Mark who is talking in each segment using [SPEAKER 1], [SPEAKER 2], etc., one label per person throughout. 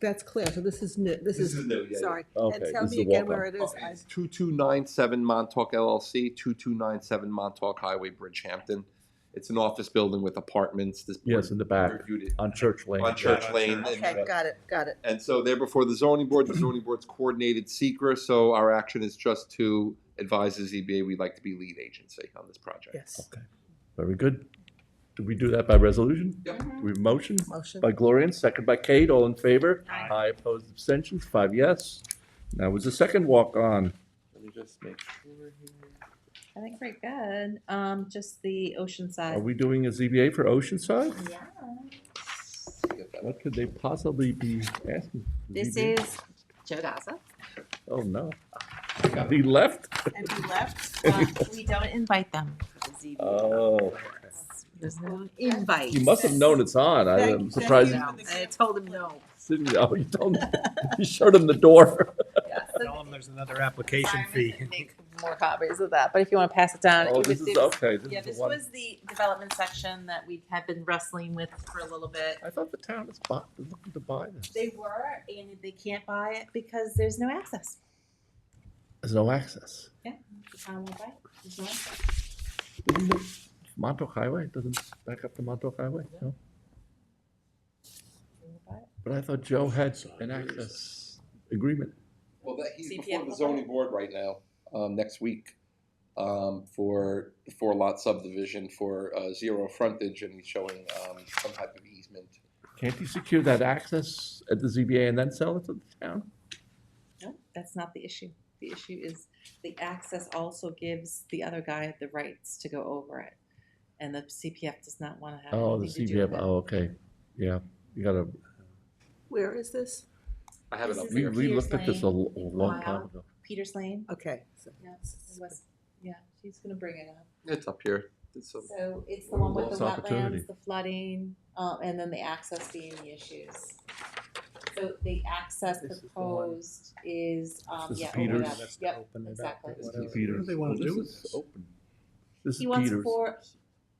[SPEAKER 1] that's clear, so this is new, this
[SPEAKER 2] This
[SPEAKER 1] is,
[SPEAKER 2] is new, yeah, yeah.
[SPEAKER 1] sorry.
[SPEAKER 3] Okay,
[SPEAKER 1] And tell
[SPEAKER 3] this is
[SPEAKER 1] me
[SPEAKER 3] a
[SPEAKER 1] again
[SPEAKER 3] walk-up.
[SPEAKER 1] where it is. I-
[SPEAKER 2] 2297 Montauk LLC, 2297 Montauk Highway, Bridgehampton. It's an office building with apartments. This board
[SPEAKER 3] Yes, in the back.
[SPEAKER 2] Reviewed it
[SPEAKER 3] on Church Lane.
[SPEAKER 2] on Church Lane. and-
[SPEAKER 1] Okay, got it, got it.
[SPEAKER 2] And so they're before the zoning board. The zoning board's coordinated secret, so our action is just to advise the ZBA we'd like to be lead agency on this project.
[SPEAKER 1] Yes,
[SPEAKER 3] Very good. Do we do that by resolution?
[SPEAKER 2] Yep.
[SPEAKER 3] Do we motion?
[SPEAKER 1] motion.
[SPEAKER 3] By Gloria and second by Kate, all in favor?
[SPEAKER 4] Aye.
[SPEAKER 3] Aye, opposed, abstentions, five yes. Now, was the second walk-on,
[SPEAKER 2] Let me just make sure here.
[SPEAKER 4] I think we're good. Um, just the
[SPEAKER 3] are
[SPEAKER 4] Oceanside.
[SPEAKER 3] we doing a ZBA for Oceanside?
[SPEAKER 4] Yeah.
[SPEAKER 3] What could they possibly be asking?
[SPEAKER 4] This
[SPEAKER 3] ZBA?
[SPEAKER 4] is Joe Gaza.
[SPEAKER 3] Oh, no. He left?
[SPEAKER 1] And we left.
[SPEAKER 4] Um, We don't invite them. to the ZBA.
[SPEAKER 3] Oh,
[SPEAKER 4] There's no invite.
[SPEAKER 3] you must have known it's on,
[SPEAKER 1] Thank-
[SPEAKER 3] I'm
[SPEAKER 1] thank
[SPEAKER 3] surprised.
[SPEAKER 1] you.
[SPEAKER 4] No, I told him no.
[SPEAKER 3] Sydney, oh, you told him, you showed him the door.
[SPEAKER 4] Yeah, so
[SPEAKER 5] Tell them there's another application
[SPEAKER 4] sorry,
[SPEAKER 5] fee.
[SPEAKER 4] I make More copies of that, but if you want to pass it down. it
[SPEAKER 3] Oh,
[SPEAKER 4] was-
[SPEAKER 3] this is,
[SPEAKER 4] it was-
[SPEAKER 3] okay, this
[SPEAKER 4] Yeah,
[SPEAKER 3] is
[SPEAKER 4] this
[SPEAKER 3] the one.
[SPEAKER 4] was the development section that we had been wrestling with for a little bit.
[SPEAKER 3] I thought the town was bu- looking to buy this.
[SPEAKER 4] They were, and they can't buy it because there's no access.
[SPEAKER 3] There's no access.
[SPEAKER 4] The town won't buy it. There's no access.
[SPEAKER 3] Doesn't it- Montauk Highway, doesn't it back up to Montauk Highway, no?
[SPEAKER 4] They won't buy it.
[SPEAKER 3] But I thought Joe had an access agreement.
[SPEAKER 2] Well, that, he's
[SPEAKER 4] CPF
[SPEAKER 2] before the
[SPEAKER 4] will
[SPEAKER 2] zoning board right now, um, next week, um, for the four lot subdivision for, uh, zero frontage and he's showing, um, some type of easement.
[SPEAKER 3] Can't you secure that access at the ZBA and then sell it to the town?
[SPEAKER 4] No, that's not the issue. The issue is the access also gives the other guy the rights to go over it. And the CPF does not want to have
[SPEAKER 3] Oh, the
[SPEAKER 4] anything to do
[SPEAKER 3] CBF,
[SPEAKER 4] with it.
[SPEAKER 3] oh, okay, yeah, you gotta,
[SPEAKER 1] Where is this?
[SPEAKER 2] I have it
[SPEAKER 4] This
[SPEAKER 2] up
[SPEAKER 4] is
[SPEAKER 3] we,
[SPEAKER 2] here.
[SPEAKER 4] it
[SPEAKER 3] we looked at
[SPEAKER 4] Peters
[SPEAKER 3] this a l- a long time
[SPEAKER 4] Wow.
[SPEAKER 3] ago.
[SPEAKER 4] Peters Lane?
[SPEAKER 1] Okay. so-
[SPEAKER 4] Yes, West, yeah, she's gonna bring it up.
[SPEAKER 2] It's up here. It's up.
[SPEAKER 4] So it's the one with the
[SPEAKER 3] Lost opportunity.
[SPEAKER 4] wetlands, the flooding, uh, and then the access being the issues. So the access
[SPEAKER 5] This is the one.
[SPEAKER 4] proposed is,
[SPEAKER 3] This
[SPEAKER 4] um,
[SPEAKER 3] is
[SPEAKER 4] yeah, over
[SPEAKER 3] Peters.
[SPEAKER 4] that,
[SPEAKER 5] Let's
[SPEAKER 4] yep.
[SPEAKER 5] open it up,
[SPEAKER 4] exactly.
[SPEAKER 5] whatever.
[SPEAKER 3] Peters.
[SPEAKER 5] What do they wanna
[SPEAKER 3] Oh, this
[SPEAKER 5] do with
[SPEAKER 3] is
[SPEAKER 5] this?
[SPEAKER 3] open. This is
[SPEAKER 4] He wants
[SPEAKER 3] Peters.
[SPEAKER 4] four,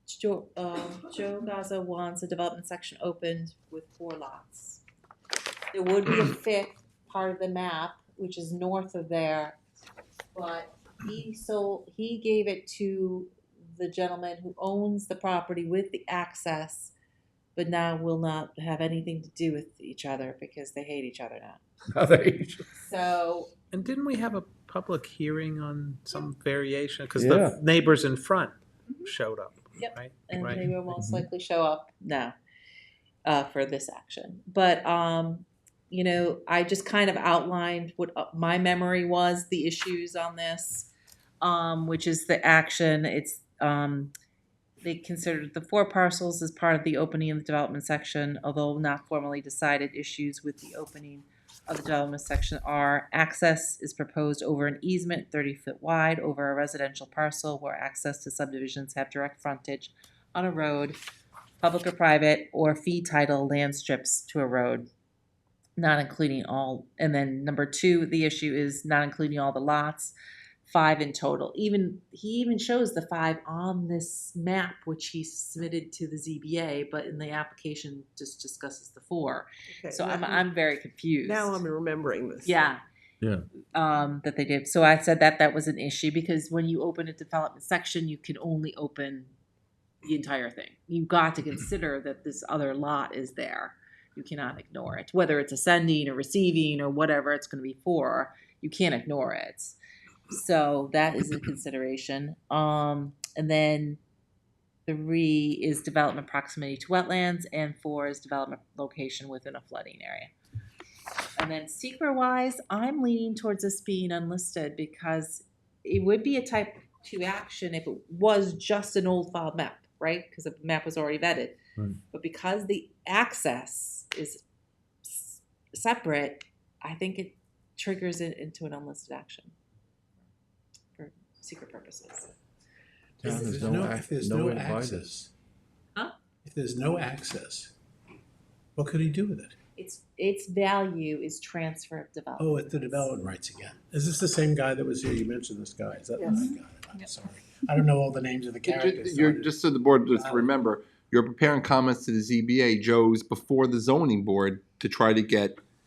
[SPEAKER 4] Joe, um, Joe Gaza wants a development section opened with four lots. There would be a fifth part of the map, which is north of there, but he sold, he gave it to the gentleman who owns the property with the access, but now will not have anything to do with each other because they hate each other now.
[SPEAKER 3] Now they-
[SPEAKER 4] So
[SPEAKER 5] And didn't we have a public hearing on some variation? Because
[SPEAKER 3] Yeah.
[SPEAKER 5] the neighbors in front
[SPEAKER 4] Mhm.
[SPEAKER 5] showed up,
[SPEAKER 4] Yep.
[SPEAKER 5] right?
[SPEAKER 4] and
[SPEAKER 5] Right.
[SPEAKER 4] they will most
[SPEAKER 3] Mhm.
[SPEAKER 4] likely show up now uh, for this action. But um, you know, I just kind of outlined what uh, my memory was the issues on this, um, which is the action. It's um, they considered the four parcels as part of the opening of the development section, although not formally decided. Issues with the opening of the development section are access is proposed over an easement thirty foot wide over a residential parcel where access to subdivisions have direct frontage on a road, public or private, or fee title land strips to a road, not including all, and then number two, the issue is not including all the lots, five in total. Even, he even shows the five on this map, which he submitted to the ZBA, but in the application just discusses the four.
[SPEAKER 1] okay,
[SPEAKER 4] So
[SPEAKER 1] now-
[SPEAKER 4] I'm, I'm very confused.
[SPEAKER 1] Now I'm remembering this.
[SPEAKER 4] Yeah.
[SPEAKER 3] Yeah.
[SPEAKER 4] Um, that they did. So I said that that was an issue because when you open a development section, you can only open the entire thing. You've got to consider that this other lot is there. You cannot ignore it, whether it's ascending or receiving or whatever it's going to be for. You can't ignore it. So that is a consideration. Um, and then three is development proximity to wetlands, and four is development location within a flooding area. And then secret wise, I'm leaning towards this being unlisted because it would be a type two action if it was just an old file map, right? Because the map was already vetted.
[SPEAKER 3] Right.
[SPEAKER 4] But because the access is s- separate, I think it triggers it into an unlisted action for secret purposes.
[SPEAKER 3] Town
[SPEAKER 6] If
[SPEAKER 3] has
[SPEAKER 6] there's
[SPEAKER 3] no
[SPEAKER 6] no,
[SPEAKER 3] ac-
[SPEAKER 6] if there's
[SPEAKER 3] no
[SPEAKER 6] no
[SPEAKER 3] way to buy
[SPEAKER 6] access.
[SPEAKER 4] Huh?
[SPEAKER 6] If there's no access, what could he do with it?
[SPEAKER 4] Its its value is transfer of development.
[SPEAKER 6] Oh, it's the development rights again. Is this the same guy that was here? You mentioned this guy. Is that the
[SPEAKER 1] Yes.
[SPEAKER 6] right guy? I'm sorry. I don't know all the names of the characters. so I
[SPEAKER 2] You're,
[SPEAKER 6] didn't-
[SPEAKER 2] just so the board,
[SPEAKER 4] Uh,
[SPEAKER 2] just to remember, you're preparing comments to the ZBA, Joe's before the zoning board to try to get